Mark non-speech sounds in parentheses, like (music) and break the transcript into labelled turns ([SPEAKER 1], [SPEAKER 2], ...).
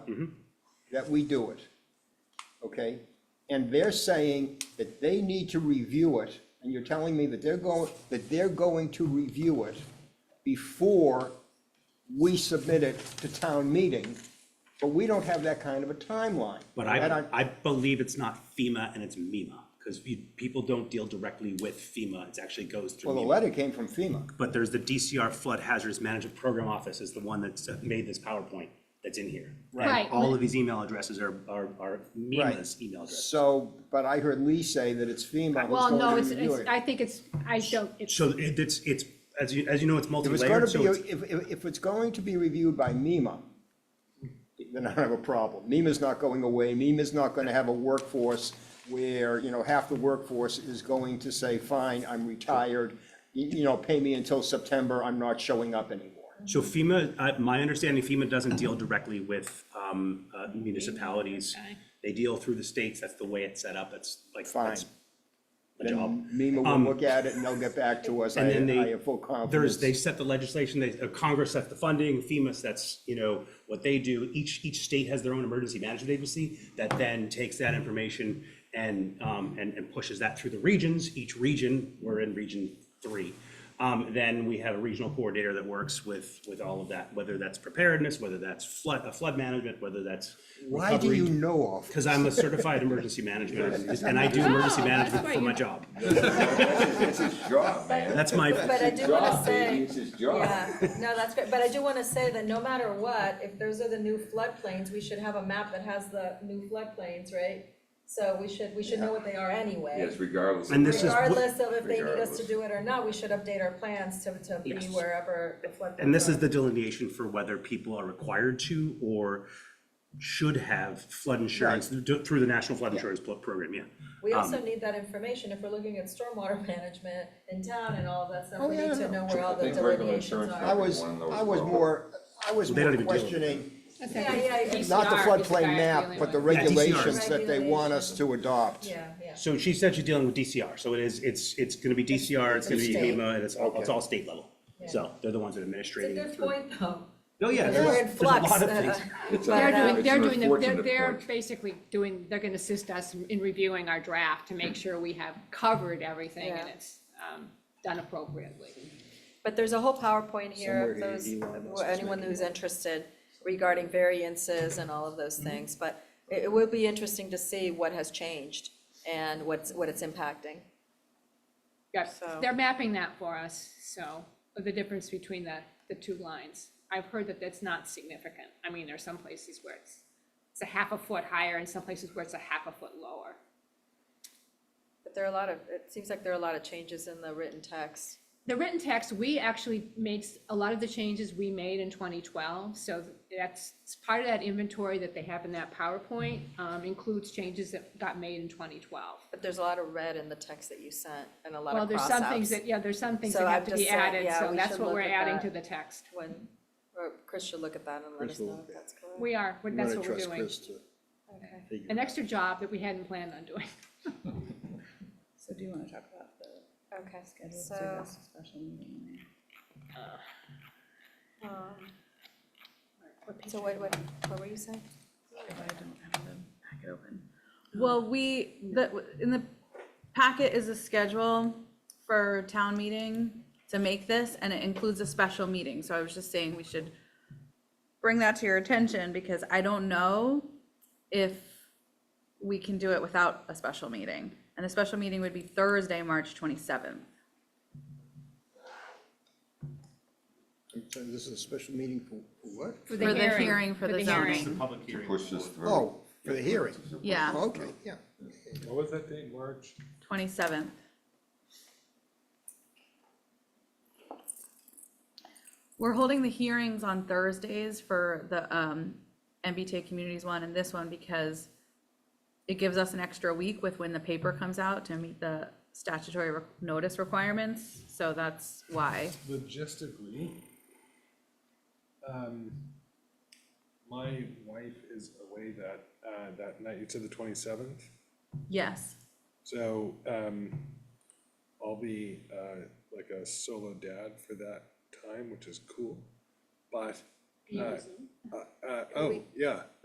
[SPEAKER 1] Mm-hmm.
[SPEAKER 2] that we do it, okay? And they're saying that they need to review it, and you're telling me that they're going, that they're going to review it before we submit it to town meeting, but we don't have that kind of a timeline.
[SPEAKER 1] But
[SPEAKER 2] That
[SPEAKER 1] I, I believe it's not FEMA and it's MEMA, because people don't deal directly with FEMA, it actually goes through
[SPEAKER 2] Well, the
[SPEAKER 1] MEMA.
[SPEAKER 2] letter came from FEMA.
[SPEAKER 1] But there's the DCR Flood Hazards Management Program Office is the one that's uh, made this PowerPoint that's in here. And
[SPEAKER 3] Right.
[SPEAKER 1] All of these email addresses are, are, are MEMA's email address.
[SPEAKER 2] So, but I heard Lee say that it's FEMA who's
[SPEAKER 3] Well,
[SPEAKER 2] going
[SPEAKER 3] no,
[SPEAKER 2] to
[SPEAKER 3] it's,
[SPEAKER 2] review
[SPEAKER 3] it's,
[SPEAKER 2] it.
[SPEAKER 3] I think it's, I don't, it's,
[SPEAKER 1] So it- it's, it's, as you, as you know, it's
[SPEAKER 2] If it's going to
[SPEAKER 1] multi-layered, so it's,
[SPEAKER 2] be, if, if, if it's going to be reviewed by MEMA, then I have a problem. MEMA's not going away. MEMA's not going to have a workforce where, you know, half the workforce is going to say, fine, I'm retired. You, you know, pay me until September. I'm not showing up anymore.
[SPEAKER 1] so FEMA, uh, my understanding FEMA doesn't deal directly with, um, uh, municipalities.
[SPEAKER 3] Okay.
[SPEAKER 1] They deal through the states, that's the way it's set up, that's like, that's
[SPEAKER 2] Fine.
[SPEAKER 1] the job.
[SPEAKER 2] Then MEMA will look at it and they'll get back to us. I,
[SPEAKER 1] Um, And then
[SPEAKER 2] I
[SPEAKER 1] they,
[SPEAKER 2] have full
[SPEAKER 1] there's,
[SPEAKER 2] confidence.
[SPEAKER 1] they set the legislation, they, uh, Congress sets the funding, FEMA sets, you know, what they do. Each, each state has their own emergency management agency that then takes that information and, um, and, and pushes that through the regions. Each region, we're in region three. Um, then we have a regional coordinator that works with, with all of that, whether that's preparedness, whether that's flood, uh, flood management, whether that's
[SPEAKER 2] Why do you
[SPEAKER 1] recovery.
[SPEAKER 2] know of?
[SPEAKER 1] (laughs) Cause I'm a certified emergency manager and I do emergency
[SPEAKER 3] Oh, that's
[SPEAKER 1] management
[SPEAKER 3] why
[SPEAKER 1] for my
[SPEAKER 3] you-
[SPEAKER 1] job.
[SPEAKER 4] That's his job, man.
[SPEAKER 1] That's my,
[SPEAKER 5] But I
[SPEAKER 4] It's his
[SPEAKER 5] do wanna
[SPEAKER 4] job,
[SPEAKER 5] say-
[SPEAKER 4] baby, It's his job.
[SPEAKER 5] Yeah, no, that's great, but I do wanna say that no matter what, if those are the new floodplains, we should have a map that has the new floodplains, right? So we should, we should know what they are anyway.
[SPEAKER 4] Yes, regardless. of
[SPEAKER 1] And this is what-
[SPEAKER 5] Regardless of if they need us to
[SPEAKER 4] Regardless.
[SPEAKER 5] do it or not, we should update our plans to, to be
[SPEAKER 1] Yes.
[SPEAKER 5] wherever the floodplains
[SPEAKER 1] And this is
[SPEAKER 5] are.
[SPEAKER 1] the delineation for whether people are required to or should have flood insurance th- through the National Flood Insurance Pl- Program, yeah.
[SPEAKER 5] We also need that information if we're looking at stormwater (laughs) management in town and all of that
[SPEAKER 2] Oh,
[SPEAKER 5] stuff, we
[SPEAKER 2] yeah,
[SPEAKER 5] need
[SPEAKER 2] no,
[SPEAKER 5] to know where all
[SPEAKER 4] I
[SPEAKER 5] the
[SPEAKER 4] think regular
[SPEAKER 5] delineations
[SPEAKER 4] insurance
[SPEAKER 2] I
[SPEAKER 5] are.
[SPEAKER 4] companies-
[SPEAKER 2] was,
[SPEAKER 4] One of those
[SPEAKER 2] I was
[SPEAKER 4] problems.
[SPEAKER 2] more, I was
[SPEAKER 1] They don't
[SPEAKER 2] more
[SPEAKER 1] even deal with it.
[SPEAKER 2] questioning
[SPEAKER 5] Yeah, yeah, yeah.
[SPEAKER 2] not the
[SPEAKER 3] DCR is the guy
[SPEAKER 2] floodplain map,
[SPEAKER 3] dealing
[SPEAKER 2] but the
[SPEAKER 3] with
[SPEAKER 1] it. Yeah, DCR.
[SPEAKER 2] regulations that they want us to adopt.
[SPEAKER 5] Yeah, yeah.
[SPEAKER 1] So she said she's dealing with DCR, so it is, it's, it's gonna be DCR, it's gonna be
[SPEAKER 5] State.
[SPEAKER 1] HEMA, and it's all, it's
[SPEAKER 2] Okay.
[SPEAKER 1] all state level. So they're the ones that are
[SPEAKER 5] It's a
[SPEAKER 1] administrating.
[SPEAKER 5] good
[SPEAKER 1] through-
[SPEAKER 5] point though.
[SPEAKER 1] Oh, yeah,
[SPEAKER 5] Because
[SPEAKER 1] there's,
[SPEAKER 5] we're in
[SPEAKER 1] there's a lot of
[SPEAKER 5] flux.
[SPEAKER 1] things.
[SPEAKER 4] It's a-
[SPEAKER 3] they're
[SPEAKER 4] it's
[SPEAKER 3] doing, they're
[SPEAKER 4] an
[SPEAKER 3] doing, the- they're,
[SPEAKER 4] unfortunate
[SPEAKER 3] they're
[SPEAKER 4] point.
[SPEAKER 3] basically doing, they're gonna assist us in reviewing our draft to make sure we have covered everything and
[SPEAKER 5] Yeah.
[SPEAKER 3] it's, um, done appropriately.
[SPEAKER 5] But there's a whole
[SPEAKER 2] Somewhere
[SPEAKER 5] PowerPoint here, of
[SPEAKER 2] here,
[SPEAKER 5] those,
[SPEAKER 2] Elon Musk
[SPEAKER 5] for
[SPEAKER 2] is
[SPEAKER 5] anyone
[SPEAKER 2] making
[SPEAKER 5] who's interested regarding variances and all of those
[SPEAKER 2] Mm-hmm.
[SPEAKER 5] things, but it, it will be interesting to see what has changed and what's, what it's impacting.
[SPEAKER 3] Yes,
[SPEAKER 5] So-
[SPEAKER 3] they're mapping that for us, so, the difference between the, the two lines. I've heard that that's not significant. I mean, there's some places where it's, it's a half a foot higher and some places where it's a half a foot lower.
[SPEAKER 5] But there are a lot of, it seems like there are a lot of changes in the written text.
[SPEAKER 3] The written text, we actually made s- a lot of the changes we made in twenty twelve, so that's, it's part of that inventory that they have in that PowerPoint, um, includes changes that got made in twenty twelve.
[SPEAKER 5] But there's a lot of red in the text that you sent and a lot
[SPEAKER 3] Well,
[SPEAKER 5] of
[SPEAKER 3] there's some things
[SPEAKER 5] cross-outs.
[SPEAKER 3] that, yeah, there's some things
[SPEAKER 5] So
[SPEAKER 3] that have
[SPEAKER 5] I've
[SPEAKER 3] to be
[SPEAKER 5] just said,
[SPEAKER 3] added,
[SPEAKER 5] yeah,
[SPEAKER 3] so
[SPEAKER 5] we
[SPEAKER 3] that's
[SPEAKER 5] should
[SPEAKER 3] what
[SPEAKER 5] look
[SPEAKER 3] we're
[SPEAKER 5] at
[SPEAKER 3] adding
[SPEAKER 5] that.
[SPEAKER 3] to the text.
[SPEAKER 5] When, or Chris should look at that and let
[SPEAKER 2] Chris
[SPEAKER 5] us
[SPEAKER 2] will
[SPEAKER 5] know
[SPEAKER 2] look
[SPEAKER 5] if
[SPEAKER 2] at
[SPEAKER 5] that's correct.
[SPEAKER 3] We are, we're-
[SPEAKER 2] I'm
[SPEAKER 3] that's
[SPEAKER 2] gonna
[SPEAKER 3] what we're
[SPEAKER 2] trust
[SPEAKER 3] doing.
[SPEAKER 2] Chris to
[SPEAKER 5] Okay.
[SPEAKER 2] figure
[SPEAKER 3] An
[SPEAKER 2] it out.
[SPEAKER 3] extra job that we hadn't planned on doing. (laughs)
[SPEAKER 6] So do you want to talk about the
[SPEAKER 5] Okay,
[SPEAKER 6] schedule of the
[SPEAKER 5] so,
[SPEAKER 6] next special meeting?
[SPEAKER 5] um, so what, what, what were you saying?
[SPEAKER 6] If I don't have the packet open. Well, we, the, in the packet is a schedule for town meeting to make this, and it includes a special meeting, so I was just saying we should bring that to your attention, because I don't know if we can do it without a special meeting. And a special meeting would be Thursday, March twenty-seventh.
[SPEAKER 2] I'm sorry, This is a special meeting for for what?
[SPEAKER 6] For the hearing for the zoning.
[SPEAKER 3] hearing.
[SPEAKER 1] public hearing.
[SPEAKER 4] Push this through.
[SPEAKER 2] Oh, for the hearing.
[SPEAKER 6] Yeah,
[SPEAKER 2] Oh, Okay, yeah.
[SPEAKER 7] What was that date, March?
[SPEAKER 6] twenty-seventh. We're holding the hearings on Thursdays for the um, MBTA Communities one and this one because it gives us an extra week with when the paper comes out to meet the statutory re- notice requirements, so that's why.
[SPEAKER 7] Logistically, um, my wife is away that, uh, that night, to the twenty-seventh.
[SPEAKER 6] Yes,
[SPEAKER 7] So, um, I'll be, uh, like a solo dad for that time, which is cool. But, uh, uh, uh, oh, yeah.